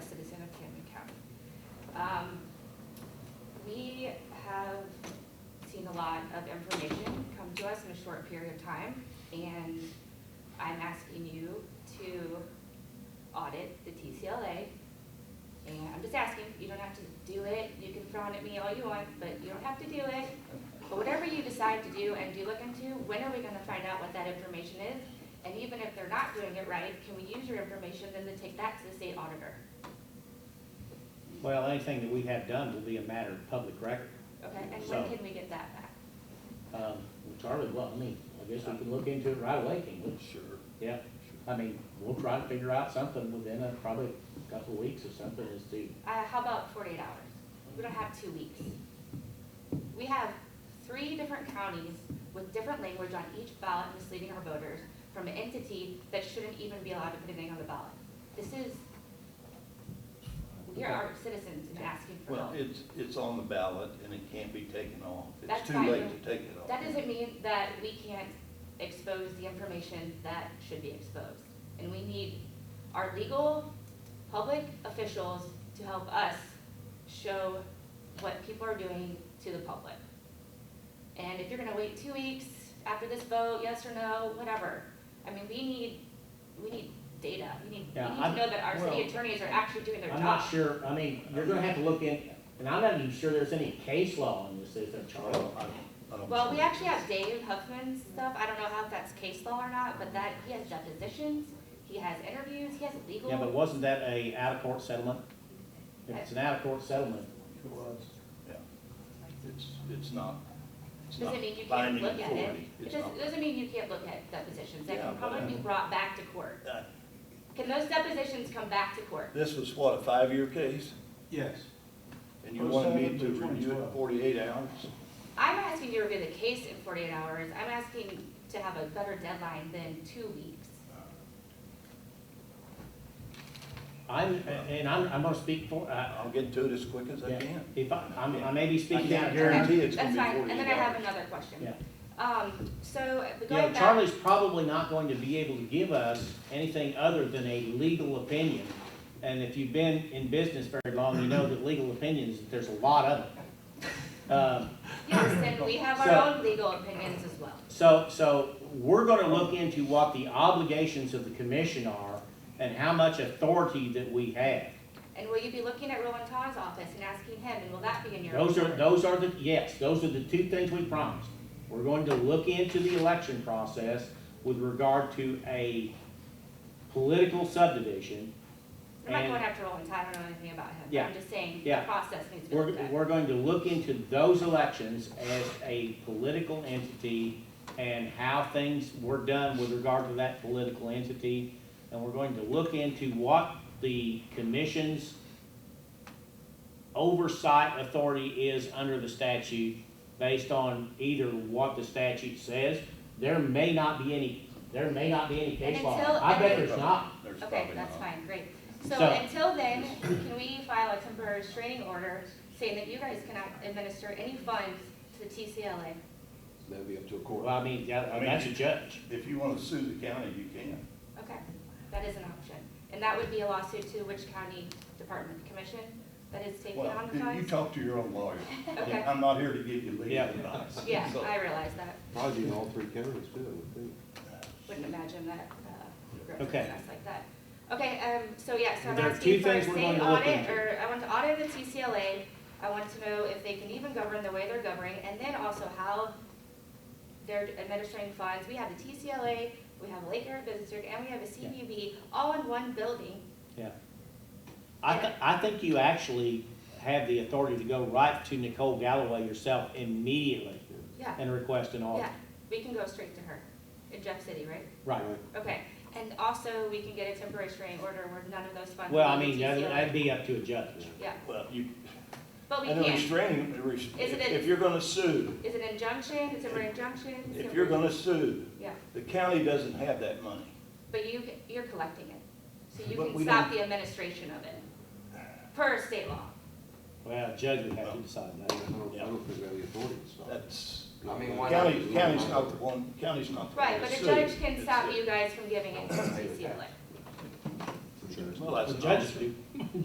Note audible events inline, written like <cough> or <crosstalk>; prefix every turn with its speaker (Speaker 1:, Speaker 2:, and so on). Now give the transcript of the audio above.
Speaker 1: Um, We have seen a lot of information come to us in a short period of time, and I'm asking you to audit the TCLA. And I'm just asking, you don't have to do it, you can frown at me all you want, but you don't have to do it. But whatever you decide to do and do look into, when are we gonna find out what that information is? And even if they're not doing it right, can we use your information then to take that to the state auditor,
Speaker 2: Well, anything that we have done will be a matter of public record.
Speaker 1: okay? And when
Speaker 2: So-
Speaker 1: can we get that back?
Speaker 2: Um, well, Charlie, well, I mean, I guess we can look into it right away, can we? Sure. Yeah, I mean, we'll try to figure out something within a, probably a couple of weeks or something as to,
Speaker 1: Uh, how about forty-eight hours? We don't have two weeks. We have three different counties with different language on each ballot misleading our voters from an entity that shouldn't even be allowed to put anything on the ballot. This is, we are our citizens and asking for
Speaker 3: Well,
Speaker 1: help.
Speaker 3: it's, it's on the ballot and it can't be taken off.
Speaker 1: That's
Speaker 3: It's too
Speaker 1: fine.
Speaker 3: late to take it off.
Speaker 1: That doesn't mean that we can't expose the information that should be exposed. And we need our legal, public officials to help us show what people are doing to the public. And if you're gonna wait two weeks after this vote, yes or no, whatever, I mean, we need, we need data. We need, we
Speaker 2: Yeah,
Speaker 1: need to
Speaker 2: I'm-
Speaker 1: know that our city
Speaker 2: well,
Speaker 1: attorneys are actually doing their job.
Speaker 2: I'm not sure, I mean, you're gonna have to look in, and I'm not even sure there's any case law on this, is there, Charlie?
Speaker 3: Well, I- I don't
Speaker 1: Well,
Speaker 3: see
Speaker 1: we
Speaker 3: it.
Speaker 1: actually have Dave Huffman's stuff, I don't know how if that's case law or not, but that, he has depositions, he has interviews, he has legal.
Speaker 2: Yeah, but wasn't that a out-of-court settlement? If it's an out-of-court settlement,
Speaker 3: It was. Yeah. It's, it's not, it's not
Speaker 1: Doesn't mean you can't
Speaker 3: binding
Speaker 1: look at it,
Speaker 3: authority.
Speaker 1: it
Speaker 3: It's
Speaker 1: doesn't,
Speaker 3: not.
Speaker 1: doesn't mean you can't look at depositions, they
Speaker 3: Yeah,
Speaker 1: can
Speaker 3: but I
Speaker 1: probably be
Speaker 3: mean-
Speaker 1: brought back to court.
Speaker 3: Uh,
Speaker 1: Can those depositions come back to court?
Speaker 3: This was what, a five-year case?
Speaker 4: Yes.
Speaker 3: And you wanted me to
Speaker 4: 07 to
Speaker 3: review it in
Speaker 4: 2012.
Speaker 3: forty-eight hours?
Speaker 1: I'm asking you to review the case in forty-eight hours, I'm asking to have a better deadline than two weeks.
Speaker 2: I'm, and I'm, I'm gonna speak for, I
Speaker 3: I'll get to it as quick as I
Speaker 2: yeah,
Speaker 3: can.
Speaker 2: if I, I'm- I may be
Speaker 3: I
Speaker 2: speaking out
Speaker 3: can't
Speaker 2: of turn.
Speaker 3: guarantee it's
Speaker 1: Okay,
Speaker 3: gonna
Speaker 1: That's
Speaker 3: be forty-eight
Speaker 1: fine,
Speaker 3: hours.
Speaker 1: and then I have another question.
Speaker 2: Yeah.
Speaker 1: Um, so, going
Speaker 2: You know,
Speaker 1: back.
Speaker 2: Charlie's probably not going to be able to give us anything other than a legal opinion. And if you've been in business very long, you know that legal opinions, there's a lot of them. Um,
Speaker 1: Yes, and we have our
Speaker 2: So-
Speaker 1: own legal opinions as well.
Speaker 2: So, so we're gonna look into what the obligations of the commission are and how much authority that we have.
Speaker 1: And will you be looking at Roland Todd's office and asking him, and will that be in your?
Speaker 2: Those are,
Speaker 1: report?
Speaker 2: those are the, yes, those are the two things we promised. We're going to look into the election process with regard to a political subdivision.
Speaker 1: I'm not
Speaker 2: and-
Speaker 1: going after Roland Todd, I don't know anything about him, but
Speaker 2: Yeah.
Speaker 1: I'm just saying, the
Speaker 2: Yeah.
Speaker 1: process needs to be
Speaker 2: We're,
Speaker 1: looked at.
Speaker 2: we're going to look into those elections as a political entity and how things were done with regard to that political entity. And we're going to look into what the commission's oversight authority is under the statute based on either what the statute says. There may not be any, there may not be any case
Speaker 1: And
Speaker 2: law.
Speaker 1: until-
Speaker 2: I bet
Speaker 1: and-
Speaker 2: there's not.
Speaker 3: There's
Speaker 1: Okay,
Speaker 3: probably
Speaker 1: that's
Speaker 3: not.
Speaker 1: fine, great. So
Speaker 2: So-
Speaker 1: until then, can we file a temporary restraining order saying that you guys cannot administer any funds to the TCLA?
Speaker 5: That'd be up to a
Speaker 2: Well,
Speaker 5: court.
Speaker 2: I mean, yeah,
Speaker 3: mean,
Speaker 2: that's a
Speaker 3: you-
Speaker 2: judge.
Speaker 3: If you wanna sue the county, you can.
Speaker 1: Okay, that is an option. And that would be a lawsuit to which county department commission that is taking
Speaker 3: Well,
Speaker 1: on the
Speaker 3: you- you
Speaker 1: funds?
Speaker 3: talk to your own lawyer.
Speaker 1: <laughs> Okay.
Speaker 3: I'm not here to give you legal
Speaker 2: Yeah.
Speaker 3: advice.
Speaker 1: Yeah,
Speaker 3: So-
Speaker 1: I realize that.
Speaker 5: Probably in all three counties too, I would think.
Speaker 1: Wouldn't imagine that, uh,
Speaker 2: Okay.
Speaker 1: that's like that. Okay, um, so yeah, so I'm
Speaker 2: There are
Speaker 1: asking
Speaker 2: two
Speaker 1: for a
Speaker 2: things we're going
Speaker 1: state
Speaker 2: to look
Speaker 1: audit,
Speaker 2: into.
Speaker 1: or I want to audit the TCLA. I want to know if they can even govern the way they're governing, and then also how they're administering funds. We have the TCLA, we have Lake Area Business District, and we have a CBB, all in one building.
Speaker 2: Yeah. I thi- I think you actually have the authority to go right to Nicole Galloway yourself immediately
Speaker 1: Yeah,
Speaker 2: and request an audit.
Speaker 1: yeah, we can go straight to her in Jeff City, right?
Speaker 2: Right.
Speaker 1: Okay, and also we can get a temporary restraining order where none of those funds.
Speaker 2: Well, I
Speaker 1: leave the
Speaker 2: mean, that-
Speaker 1: TCLA.
Speaker 2: that'd be up to a judge.
Speaker 1: Yeah,
Speaker 3: Well, you,
Speaker 1: but we
Speaker 3: and a
Speaker 1: can't.
Speaker 3: restraining, a res-
Speaker 1: Is it
Speaker 3: if
Speaker 1: a-
Speaker 3: if you're gonna sue,
Speaker 1: Is it injunction, It's a injunction? It's
Speaker 3: if
Speaker 1: a-
Speaker 3: you're gonna sue,
Speaker 1: Yeah,
Speaker 3: the county doesn't have that money.
Speaker 1: but you, you're collecting it, so you
Speaker 3: But
Speaker 1: can
Speaker 3: we
Speaker 1: stop the administration of it, per state law.
Speaker 2: Well, a judge would have to decide
Speaker 5: I
Speaker 2: that.
Speaker 5: don't, I don't think we have the authority to stop. it.
Speaker 3: That's,
Speaker 5: I mean, why not?
Speaker 3: county, county's not the one, county's not the one
Speaker 1: Right,
Speaker 3: to
Speaker 1: but a
Speaker 3: sue.
Speaker 1: judge can
Speaker 3: It's
Speaker 1: stop
Speaker 3: the-
Speaker 1: you guys from giving it to CCLA.
Speaker 3: Well, that's
Speaker 2: The
Speaker 3: an
Speaker 2: judge
Speaker 3: option.
Speaker 2: do.